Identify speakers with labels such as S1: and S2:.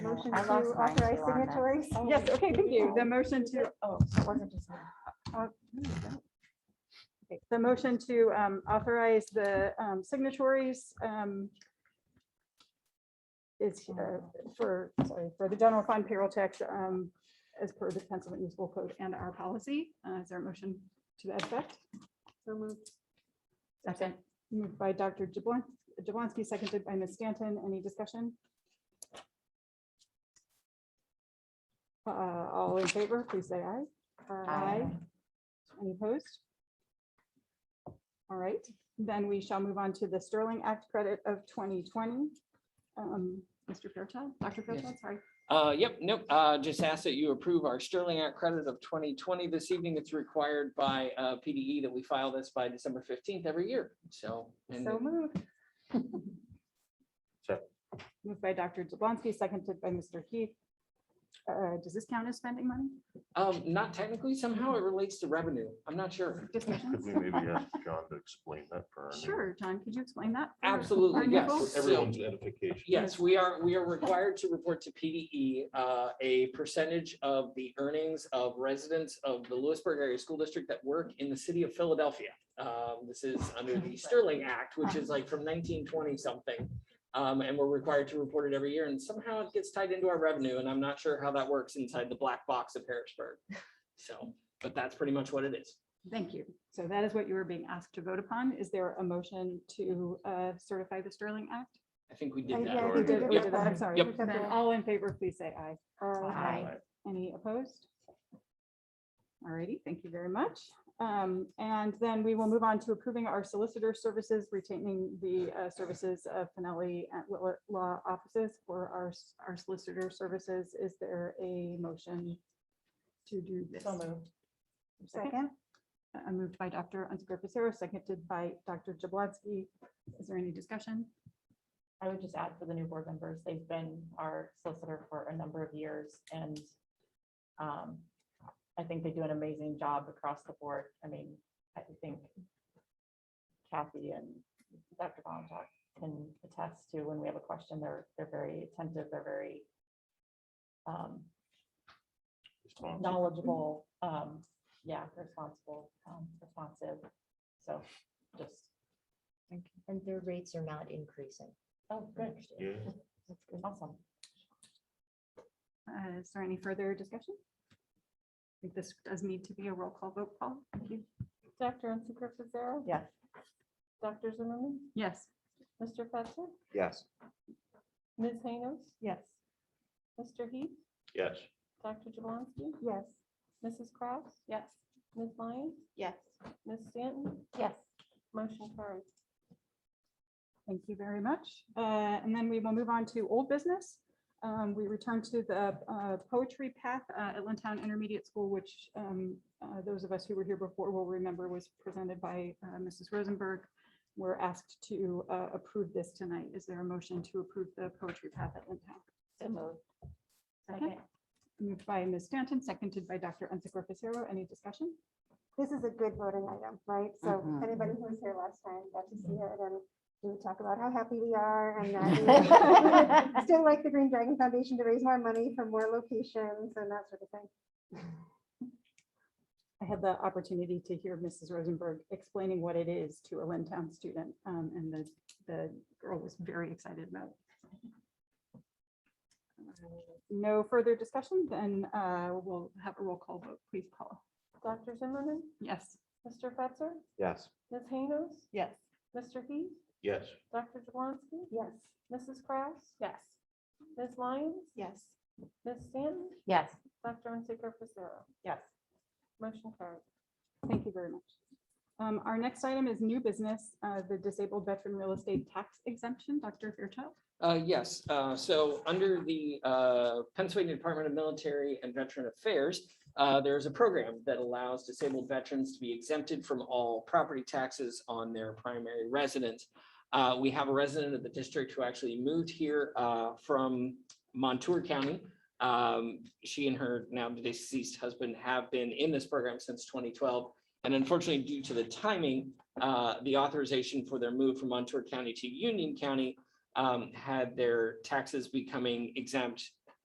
S1: motion to
S2: I lost mine
S1: authorize
S2: too on that. Oh,
S1: signatories?
S2: Yes, okay, thank you. The motion to,
S1: Oh, it wasn't just me.
S2: Oh, the motion to um, authorize the um, signatories um, is uh, for, sorry, for the general fund payroll checks um, as per the Pennsylvania Municipal Code and our policy. Uh, Is there a motion to that effect? So moved. Second, moved by Dr. Jablon- Jablonski, seconded by Ms. Stanton. Any discussion? Uh, All in favor, please say aye.
S1: Aye.
S2: Any opposed? All right, then we shall move on to the Sterling Act credit of 2020. Um, Mr. Fairchild, Dr. Fairchild, sorry.
S3: Uh, yep, nope, uh, just ask that you approve our Sterling Act credit of twenty twenty this evening. It's required by, uh, PDE that we file this by December fifteenth every year, so. and
S2: So moved.
S4: Second.
S2: Moved by Dr. Jablonski, seconded by Mr. Heath. Uh, Does this count as spending money?
S3: Um, not technically, somehow it relates to revenue. I'm not sure.
S4: Could
S2: Discussions?
S4: we maybe ask John to explain that for? our new-
S2: Sure, John, could you explain that? for our
S3: Absolutely,
S2: new
S3: yes.
S2: folks?
S4: For everyone's edification.
S3: Yes, we are, we are required to report to PDE uh, a percentage of the earnings of residents of the Lewisburg Area School District that work in the city of Philadelphia. Um, This is under the Sterling Act, which is like from nineteen twenty something. Um, And we're required to report it every year and somehow it gets tied into our revenue and I'm not sure how that works inside the black box of Harrisburg. So, but that's pretty much what it is.
S2: Thank you. So that is what you were being asked to vote upon. Is there a motion to uh, certify the Sterling Act?
S3: I think we did
S1: Uh, yeah,
S3: that.
S1: we
S2: We
S3: already.
S2: did,
S1: it
S2: we
S1: with
S3: Yep.
S2: did that. I'm
S1: that.
S2: sorry.
S3: Yep.
S2: Then
S1: Then-
S2: All in favor, please say aye.
S1: Aye.
S4: Aye.
S2: Any opposed? Alrighty, thank you very much. Um, And then we will move on to approving our solicitor services, retaining the uh, services of Finelli at Whitla- Law Offices for our, s- our solicitor services. Is there a motion to do this?
S1: So moved.
S2: Second.
S1: Second?
S2: Uh, Moved by Dr. Unzipker Pacero, seconded by Dr. Jablonski. Is there any discussion?
S5: I would just add for the new board members, they've been our solicitor for a number of years and um, I think they do an amazing job across the board. I mean, I think Kathy and Dr. Bontoc can attest to when we have a question, they're, they're very attentive, they're very um,
S4: Responsible.
S5: knowledgeable, um, yeah, responsible, um, responsive. So just,
S6: And their rates are not increasing.
S5: oh, good,
S4: Yeah.
S5: awesome.
S2: Uh, Is there any further discussion? I think this does need to be a roll call vote, Paul. Thank you.
S5: Dr. Unseco Fisera?
S6: Yes.
S5: Dr. Zimmerman?
S2: Yes.
S5: Mr. Fetzer?
S4: Yes.
S5: Ms. Haynos?
S6: Yes.
S5: Mr. Heath?
S4: Yes.
S5: Dr. Jablonski?
S1: Yes.
S5: Mrs. Kraus? Yes. Ms. Lyons?
S6: Yes.
S5: Ms. Stanton?
S6: Yes.
S5: Motion carries.
S2: Thank you very much. Uh, And then we will move on to old business. Um, We return to the uh, poetry path uh, at Lintown Intermediate School, which um, uh, those of us who were here before will remember was presented by uh, Mrs. Rosenberg. We're asked to uh, approve this tonight. Is there a motion to approve the poetry path at Lintown?
S5: So moved.
S2: Second. Moved by Ms. Stanton, seconded by Dr. Unzicor Fisero. Any discussion?
S1: This is a good voting item, right? So
S2: Mhm.
S1: anybody who was here last time got to see it and we would talk about how happy we are and that we would still like the Green Dragon Foundation to raise more money for more locations and that sort of thing.
S2: I had the opportunity to hear Mrs. Rosenberg explaining what it is to a Lynn Town student, um, and the, the girl was very excited about it. No further discussion, then uh, we'll have a roll call vote, please, Paula.
S5: Dr. Zimmerman?
S2: Yes.
S5: Mr. Fetzer?
S4: Yes.
S5: Ms. Haynos?
S6: Yes.
S5: Mr. Heath?
S4: Yes.
S5: Dr. Jablonski?
S1: Yes.
S5: Mrs. Kraus?
S6: Yes.
S5: Ms. Lyons?
S6: Yes.
S5: Ms. Stanton?
S6: Yes.
S5: Dr. Unseco Fisera?
S6: Yes.
S5: Motion carries.
S2: Thank you very much. Um, Our next item is new business, uh, the disabled veteran real estate tax exemption. Dr. Fairchild?
S3: Uh, yes, uh, so under the, uh, Pennsylvania Department of Military and Veteran Affairs, uh, there's a program that allows disabled veterans to be exempted from all property taxes on their primary residence. Uh, we have a resident of the district who actually moved here, uh, from Montour County. Um, she and her now deceased husband have been in this program since twenty twelve. And unfortunately, due to the timing, uh, the authorization for their move from Montour County to Union County um, had their taxes becoming exempt